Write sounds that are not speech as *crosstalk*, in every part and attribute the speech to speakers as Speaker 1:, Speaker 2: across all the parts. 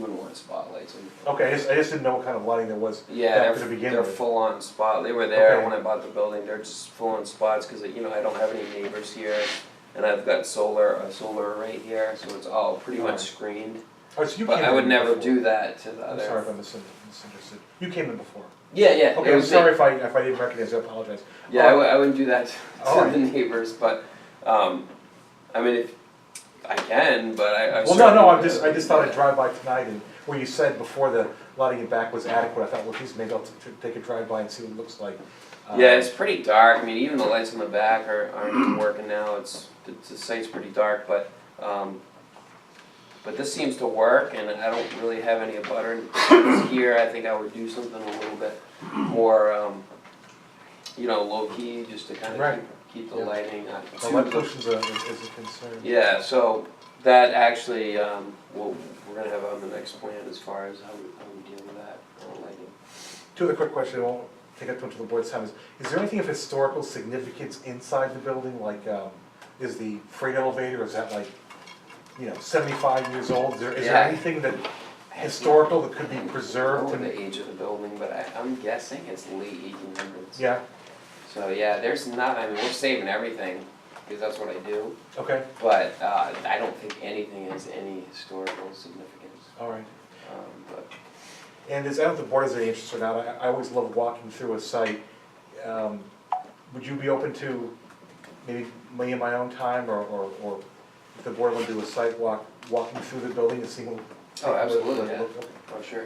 Speaker 1: wouldn't want spotlights. in-
Speaker 2: Okay, I just, I just didn't know what kind of lighting there was.
Speaker 1: Yeah,
Speaker 2: To
Speaker 1: they're,
Speaker 2: begin
Speaker 1: they're
Speaker 2: with.
Speaker 1: full on spot. They were there
Speaker 2: Okay.
Speaker 1: when I bought the building. They're just full on spots because you know I don't have any neighbors here, and I've got solar a solar array here, so it's all pretty much
Speaker 2: Alright.
Speaker 1: screened.
Speaker 2: Oh, so you
Speaker 1: But
Speaker 2: came
Speaker 1: I would
Speaker 2: in
Speaker 1: never
Speaker 2: before.
Speaker 1: do that to the
Speaker 2: I'm
Speaker 1: other.
Speaker 2: sorry if I misin- misunderstood. You came in before.
Speaker 1: yeah, yeah. it
Speaker 2: Okay, I'm
Speaker 1: was
Speaker 2: sorry Oh. if I, if I didn't recognize you, I apologize.
Speaker 1: Yeah, I w- I wouldn't do that *laughs* to
Speaker 2: Alright.
Speaker 1: the neighbors, but um, I mean, if I can, but I. I
Speaker 2: Well, no, no,
Speaker 1: certainly
Speaker 2: I'm just, I
Speaker 1: wouldn't
Speaker 2: just
Speaker 1: do
Speaker 2: thought I'd
Speaker 1: that.
Speaker 2: drive by tonight and when you said before the lighting in back was adequate, I thought, well, geez, maybe I'll t- t- take a drive by and see what it looks like. Uh,
Speaker 1: Yeah, it's pretty dark. I mean, even the lights on the back are, aren't *clears throat* working now. It's, it's, the site's pretty dark, but, um, but this seems to work and I don't really have any butter *coughs* here. I think I would do something a little bit more, um, you know, low key, just to kind of
Speaker 2: Right.
Speaker 1: keep, keep the
Speaker 2: Yeah.
Speaker 1: lighting on.
Speaker 2: The light pollution's a, is is a concern.
Speaker 1: Yeah, so that actually, um, we'll, we're gonna have on the next plan as far as how we, how we deal with that, uh, lighting.
Speaker 2: Two other quick questions, I won't take up too much of the board's time, is, is there anything of historical significance inside the building, like, um, is the freight elevator, is that like, you know, seventy-five years old, is there, is there
Speaker 1: Yeah.
Speaker 2: anything that historical that could be
Speaker 1: I don't
Speaker 2: preserved
Speaker 1: know
Speaker 2: and,
Speaker 1: the age of the building, but I, I'm guessing it's late eighteen hundreds.
Speaker 2: yeah,
Speaker 1: So yeah, there's not, I mean, we're saving everything, because that's what I do,
Speaker 2: okay,
Speaker 1: but, uh, I don't think anything has any historical significance,
Speaker 2: all right.
Speaker 1: um, but.
Speaker 2: And is, I don't know if the board has any interest or not, I, I always love walking through a site. Um, Would you be open to maybe me in my own time, or, or, or if the board would do a site walk, walking through the building and seeing what?
Speaker 1: Oh, absolutely, yeah.
Speaker 2: Okay,
Speaker 1: Oh, sure,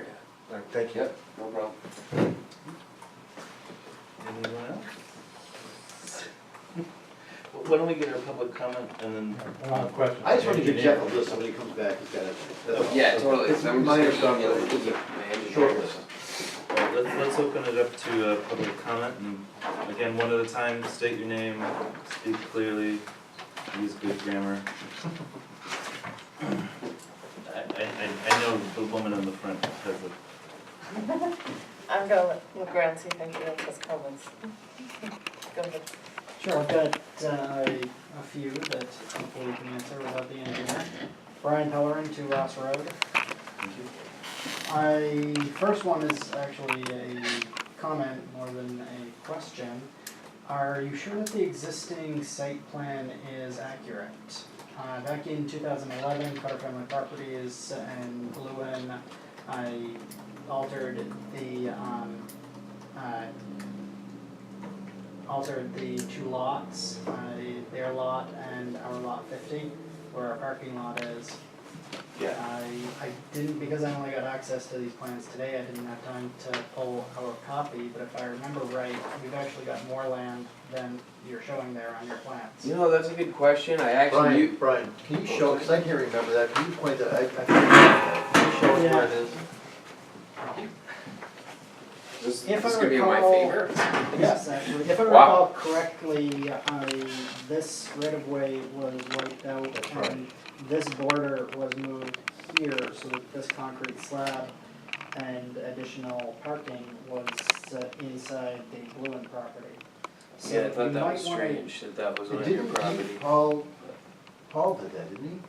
Speaker 2: All right, thank you.
Speaker 1: Yep, no problem.
Speaker 3: Anyone else? Why don't we get our public comment and then? uh,
Speaker 4: question.
Speaker 5: I just want to give Jeff a list, so when he comes back, he's got it. That's all.
Speaker 1: Yeah, totally,
Speaker 5: It's
Speaker 1: so I'm
Speaker 5: minor
Speaker 1: just
Speaker 5: stuff,
Speaker 1: gonna email
Speaker 5: but
Speaker 1: it to
Speaker 5: it's
Speaker 1: the
Speaker 5: a
Speaker 1: manager.
Speaker 5: short list.
Speaker 3: Well, let's, let's open it up to uh public comment and again, one at a time, state your name, speak clearly, use good grammar. I, I, I- I know the woman on the front has a,
Speaker 6: I'm gonna look around, see if anybody else has comments. Go ahead.
Speaker 4: Sure, I've got uh, a few that hopefully we can answer without the engineer. Brian Pellerin, to Ross Road.
Speaker 3: thank you.
Speaker 4: I, first one is actually a comment more than a question. Are you sure that the existing site plan is accurate? Uh, back in two thousand eleven, Carter Family Properties and Lewin, I altered the, um, uh, altered the two lots, uh, their lot and our lot fifty, where our parking lot is.
Speaker 1: Yeah.
Speaker 4: I, I didn't, because I only got access to these plans today, I didn't have time to pull our copy, but if I remember right, we've actually got more land than you're showing there on your plans.
Speaker 1: You know, that's a good question, I actually,
Speaker 5: Brian,
Speaker 1: you,
Speaker 5: Brian, can you show, because I can't remember that, can you point that, I, I can't remember that. Can you show us where it is?
Speaker 1: this,
Speaker 4: If
Speaker 1: this is
Speaker 4: I
Speaker 1: gonna be my
Speaker 4: recall-
Speaker 1: favorite.
Speaker 4: Yes, actually, if I
Speaker 1: Wow.
Speaker 4: recall correctly, I, this right-of-way was wiped
Speaker 5: That's
Speaker 4: out
Speaker 5: right.
Speaker 4: and this border was moved here, so that this concrete slab and additional parking was uh, inside the Bluen property. So
Speaker 1: Yeah, I
Speaker 4: you
Speaker 1: thought that
Speaker 4: might
Speaker 1: was
Speaker 4: wanna-
Speaker 1: strange, that that was
Speaker 5: It
Speaker 1: on your
Speaker 5: didn't,
Speaker 1: property.
Speaker 5: he- Paul, Paul did that, didn't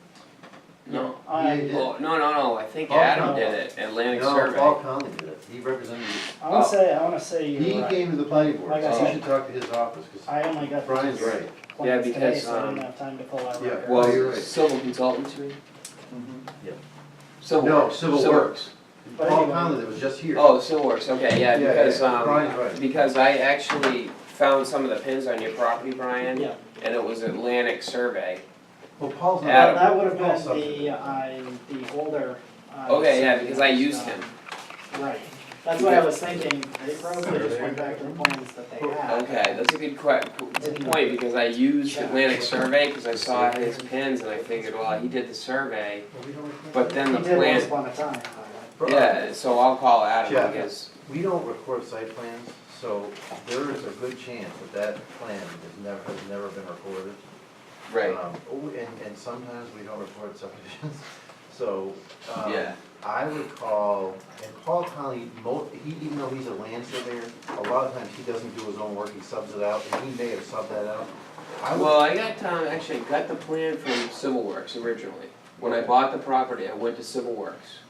Speaker 1: No,
Speaker 4: I-
Speaker 5: he? He did.
Speaker 1: oh, no, no, no, I think
Speaker 5: Oh,
Speaker 1: Adam
Speaker 4: no.
Speaker 1: did it, Atlantic
Speaker 5: No,
Speaker 1: Survey.
Speaker 5: Paul Conley did it, he represented,
Speaker 4: I
Speaker 1: Oh.
Speaker 4: wanna say, I wanna say
Speaker 5: he
Speaker 4: you're right.
Speaker 5: came to the planning board,
Speaker 4: Like I
Speaker 5: so you
Speaker 4: said-
Speaker 5: should talk to his office, because
Speaker 4: I only got.
Speaker 5: Brian's
Speaker 4: these
Speaker 5: right.
Speaker 4: plans
Speaker 1: Yeah,
Speaker 4: today,
Speaker 1: because,
Speaker 4: so I didn't
Speaker 1: um,
Speaker 4: have time to pull out
Speaker 5: yeah,
Speaker 4: records.
Speaker 5: Well, you're
Speaker 1: Well,
Speaker 5: right.
Speaker 1: civil consultants, you mean?
Speaker 3: Yep.
Speaker 1: Civil.
Speaker 5: No,
Speaker 1: Works.
Speaker 5: Civil Works,
Speaker 4: But
Speaker 5: Paul
Speaker 4: anyway,
Speaker 5: Conley, that was just here.
Speaker 1: Oh, Civil Works, okay, yeah,
Speaker 5: Yeah,
Speaker 1: because,
Speaker 5: yeah,
Speaker 1: um,
Speaker 5: Brian's right.
Speaker 1: because I actually found some of the pins on your property, Brian,
Speaker 4: Yeah,
Speaker 1: and it was Atlantic Survey.
Speaker 5: Well, Paul's not.
Speaker 4: well,
Speaker 1: Adam.
Speaker 4: that would have
Speaker 5: Paul's
Speaker 4: been
Speaker 5: something.
Speaker 4: the, uh, I, the older. uh,
Speaker 1: Okay, yeah,
Speaker 4: side
Speaker 1: because I
Speaker 4: that's,
Speaker 1: used
Speaker 4: uh,
Speaker 1: him.
Speaker 4: Right, that's what I was thinking, they probably just went back to the plans that they had.
Speaker 1: Okay, that's a good que, good point, because I used Atlantic Survey, because I saw his pins and I figured, well, he did the survey,
Speaker 5: Well, we don't-
Speaker 1: but then the
Speaker 4: He did
Speaker 1: plan,
Speaker 4: once upon a time, by the
Speaker 5: Bro-
Speaker 1: yeah, so I'll call
Speaker 5: Yeah.
Speaker 1: Adam, because
Speaker 5: We don't record site plans, so there is a good chance that that plan has never, has never been recorded.
Speaker 1: Right.
Speaker 5: Um, oh, And, and sometimes we don't record subdivisions, *laughs* so, um,
Speaker 1: Yeah.
Speaker 5: I recall, and Paul Conley, mo, he, even though he's a land surveyor, a lot of times he doesn't do his own work, he subs it out, and he may have subbed that out. I would,
Speaker 1: Well, I got, um, actually got the plan from Civil Works originally. When I bought the property, I went to Civil Works.
Speaker 5: Oh.